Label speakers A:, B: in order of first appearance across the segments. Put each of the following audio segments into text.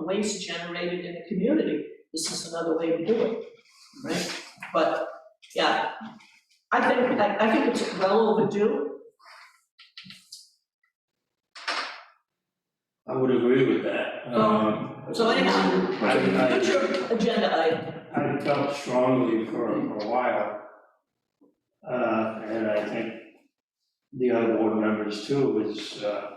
A: waste generated in the community. This is another way to do it, right? But, yeah, I think, I, I think it's well overdue.
B: I would agree with that. Um,
A: So anyhow,
B: I,
A: put your agenda item,
B: I, I felt strongly for, for a while. Uh, and I think the other board members too, is, uh,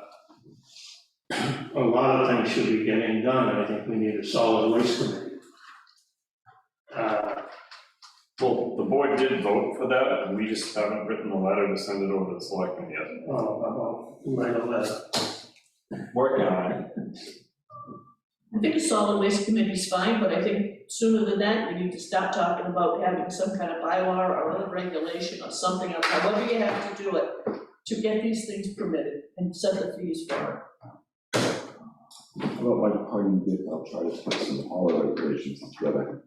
B: a lot of things should be getting done, and I think we need a solid waste committee. Uh,
C: Well, the board did vote for that, and we just haven't written the letter to send it over to the selectmen yet.
B: oh, oh, right, oh, that's-
C: Working on it.
A: I think a solid waste committee's fine, but I think sooner than that, we need to stop talking about having some kind of bylaw or other regulation or something, or however you have to do it, to get these things permitted and set the fees for it.
D: How about like party I'll try to put some holiday decorations together?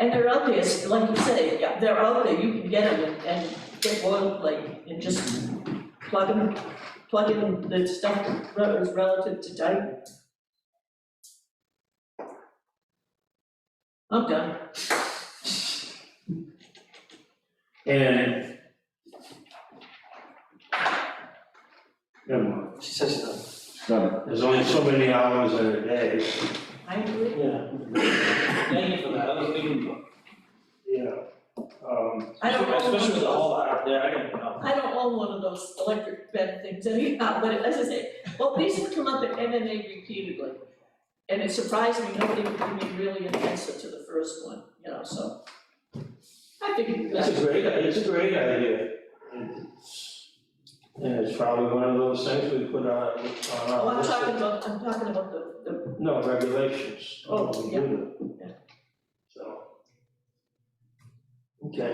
A: And they're out there, it's like you say, yeah, they're out there, you can get them and, and get boilerplate and just plug them, plug in the stuff that is relative to date. I'm done.
B: And. Never mind,
E: She says no.
D: Done.
B: there's only so many hours in a day,
A: I agree.
E: Yeah. Thank you for that, I was thinking, about-
B: you know, um.
A: I don't own
E: especially with the
A: one of
E: whole out there, I don't know.
A: those, I don't own one of those electric bed things anyhow, but as I say, well, these have come up at MMA repeatedly. And it surprised me, nobody would give me really an answer to the first one, you know, so. I think that's
B: It's a great, it's a great idea. It's- And it's probably one of those things we put on, on
A: Oh,
B: our
A: I'm
B: list.
A: talking
B: of-
A: about, I'm talking about the, the,
B: No, regulations.
A: Oh,
B: We
A: yeah,
B: do
A: yeah.
B: them. So. Okay.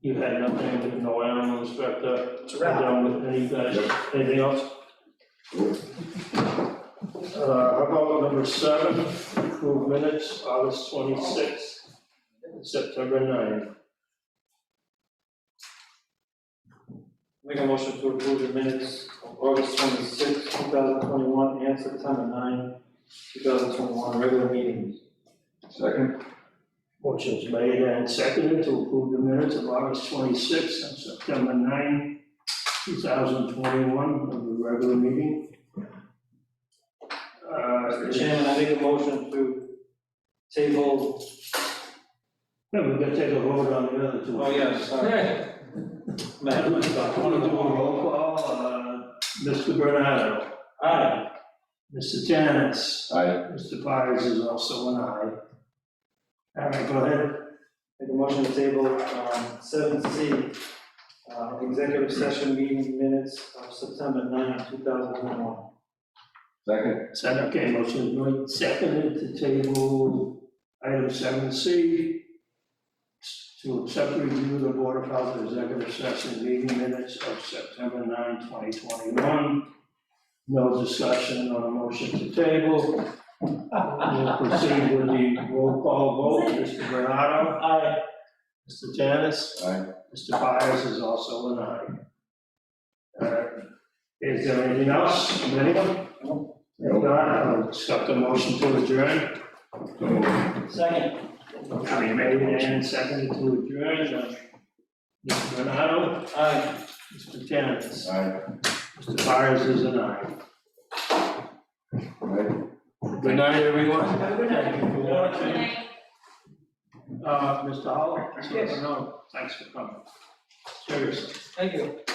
B: You had nothing, no animal inspector,
E: It's
B: you done with any guys, anything else? Uh, how about number seven, approve minutes, August twenty-sixth, September 9th.
E: Make a motion to approve the minutes of August twenty-sixth, two thousand twenty-one, and September 9, two thousand twenty-one, regular meetings.
D: Second?
B: Motion's made and seconded to approve the minutes of August 26th and September 9, 2021, of the regular meeting. Uh,
E: Mr. Chairman, I make a motion to table,
B: yeah, we gotta take a vote on the other two.
E: oh, yeah, sorry.
B: I
E: Matt,
B: want to do a roll call, uh, Mr. Bernardo,
E: aye,
B: Mr. Janice,
D: Aye.
B: Mr. Pires is also an aye. All right, go ahead.
E: make a motion to table, um, seven C, uh, executive session meeting minutes of September 9, two thousand twenty-one.
D: Second?
B: Is that okay? Motion's made, seconded to table item 7C to accept review of the Board of Health Executive Session meeting minutes of September 9, 2021. No discussion on a motion to table. We'll proceed with the roll call vote. Mr. Bernardo? Aye. Mr. Janice?
D: Aye.
B: Mr. Byers is also an aye. Uh, Is there anything else, from anyone? If not, I'll accept the motion to adjourn.
D: So moved.
E: Second.
B: Having made and seconded to adjourn, uh, Mr. Bernardo,
E: Aye.
B: Mr. Janice,
D: Aye.
B: Mr. Byers is an aye.
D: Right?
B: Good night, everyone. Thank you for
E: Good
B: watching. Uh, Mr. Howell? Yes. No, thanks for coming. Seriously.
E: Thank you.